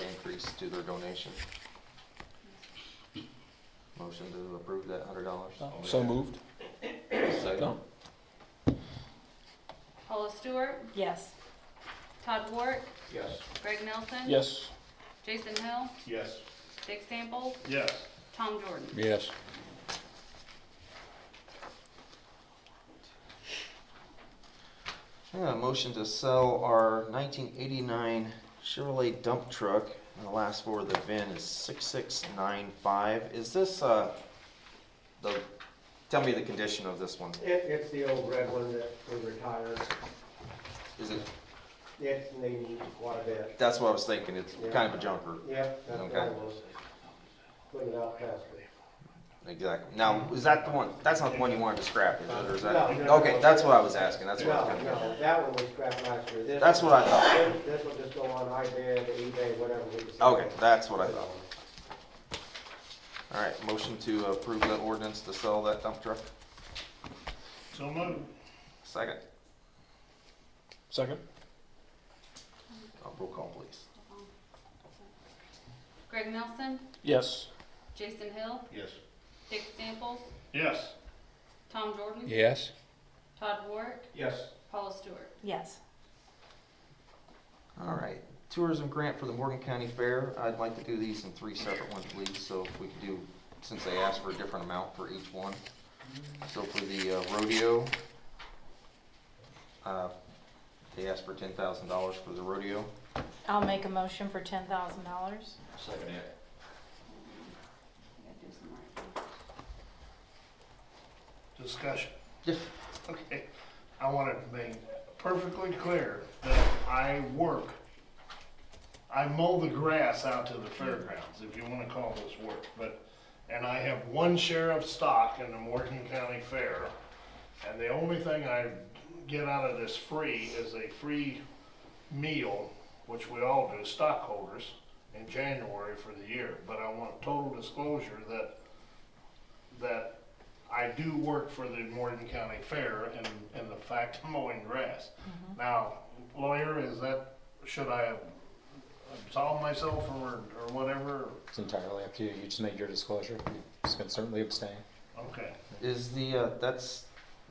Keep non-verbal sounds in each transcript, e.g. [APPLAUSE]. increase to their donation. Motion to approve that hundred dollars. So moved. Second. No. Paula Stewart, Yes. Todd Warwick, Yes. Greg Nelson. Yes. Jason Hill, Yes. Dick Sample, Yes. Tom Jordan. Yes. Yeah, motion to sell our nineteen eighty-nine Chevrolet dump truck, and the last four of the VIN is six-six-nine-five. Is this, uh, the, tell me the condition of this one. It, it's the old red one that we retired. Is it, It's needing quite a bit. that's what I was thinking, it's Yeah. kind of a junker. Yep, that's Okay. what it was. Put it out past me. Exactly. Now, is that the one, that's not the one you wanted to scrap, is it, or is that? No, no, Okay, no. that's what I was asking, that's what I No, was gonna no, that one was scrapped last year. This That's one- what I thought. this- This will just go on iBid, eBay, whatever we decide. Okay, that's what I thought. All right, motion to approve that ordinance to sell that dump truck. So moved. Second, Second? Uh, roll call, please. Greg Nelson, Yes. Jason Hill, Yes. Dick Samples, Yes. Tom Jordan. Yes. Todd Warwick, Yes. Paula Stewart. Yes. All right, tourism grant for the Morgan County Fair. I'd like to do these in three separate ones, please, so if we could do, since they asked for a different amount for each one. So for the uh, rodeo, uh, they asked for ten thousand dollars for the rodeo. I'll make a motion for ten thousand dollars. Second it. I gotta do some right. Discussion. Yes. Okay, I want it made perfectly clear that I work, I mow the grass out to the fairgrounds, if you wanna call this work, but, and I have one share of stock in the Morgan County Fair, and the only thing I get out of this free is a free meal, which we all do, stockholders, in January for the year, but I want total disclosure that, that I do work for the Morgan County Fair and, and the fact of mowing grass. Now, lawyer, is that, should I absolve myself or, or whatever? It's entirely up to you. You just made your disclosure. You can certainly abstain. Okay, Is the, uh, that's,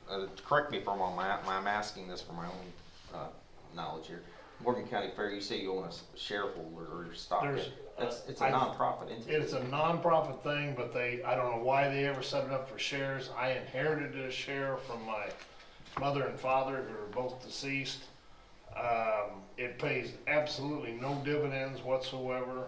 uh, correct me if I'm wrong, my, my- I'm asking this for my own, uh, knowledge here. Morgan County Fair, you say you own a s- shareholder or stock, in There's, it. that's, uh, it's a I've- nonprofit entity. it's a nonprofit thing, but they, I don't know why they ever set it up for shares. I inherited this share from my mother and father who are both deceased. Um, it pays absolutely no dividends whatsoever.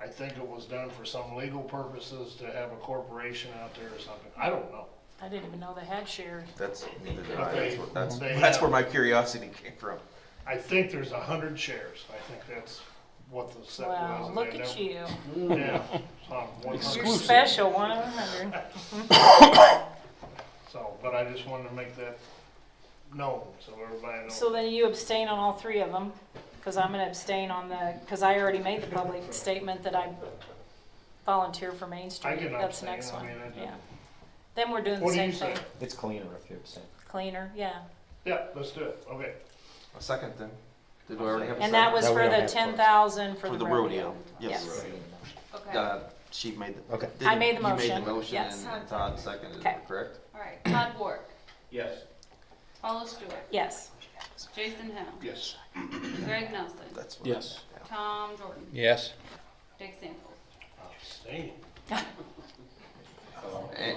I think it was done for some legal purposes to have a corporation out there or something. I don't know. I didn't even know they had shares. That's, neither did I, that's, Okay. where- that's, They [LAUGHS] that's have- where my curiosity came from. I think there's a hundred shares. I think that's what the set was. Wow, and look they at never- you. Yeah. so I'm 100. You're Exclusive. special, [LAUGHS] one of a hundred. So, but I just wanted to make that known, so everybody knows. So then you abstain on all three of them, because I'm gonna abstain on the, because I already made the public statement that I volunteer for Main I Street. can That's the abstain, next I one, mean, I yeah. didn't- Then we're doing the What do same you say? thing. It's [LAUGHS] cleaner if you abstain. Cleaner, yeah. Yeah, let's do it, okay. A second then, did we already have a second? And that was That we for don't the have to. ten thousand for For the the rodeo. rodeo, yes. Okay, all Uh, she made the. Okay. did- I made the You motion, made the motion yes. and Todd seconded Okay. it, correct? right. Todd Warwick, Yes. Paula Stewart, Yes, Jason Hill, Yes. Greg Nelson, That's what I Yes. got, yeah. Tom Jordan, Yes. Dick Samples. Oh, Abstain. And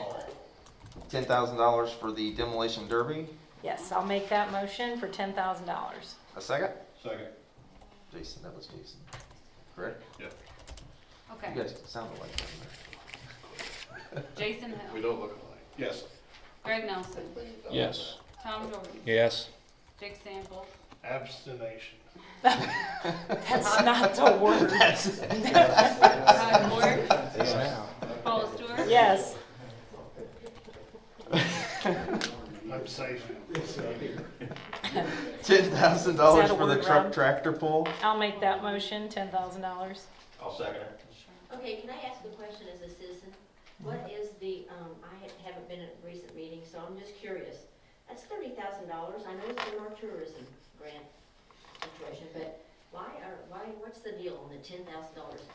ten thousand dollars for the demolition derby, yes, I'll make that motion for ten thousand dollars. a second? Second. Jason, that was Jason, correct? Yeah. You Okay, guys sounded like them there. Jason Hill, don't look alike. Yes. Greg Nelson, Yes. Tom Jordan, Yes. Dick Samples, Abstination. That's not the word. Todd Warwick, Paula Stewart. [LAUGHS] Yes, I'm safe. Ten thousand dollars for the word, truck Rob? tractor pull. I'll make that motion, ten thousand dollars. I'll second it. Okay, can I ask a question as a citizen? What is the, um, I ha- haven't been at recent meetings, so I'm just curious. That's thirty thousand dollars, I know it's in our tourism grant situation, but why are, why, what's the deal on the ten thousand dollars?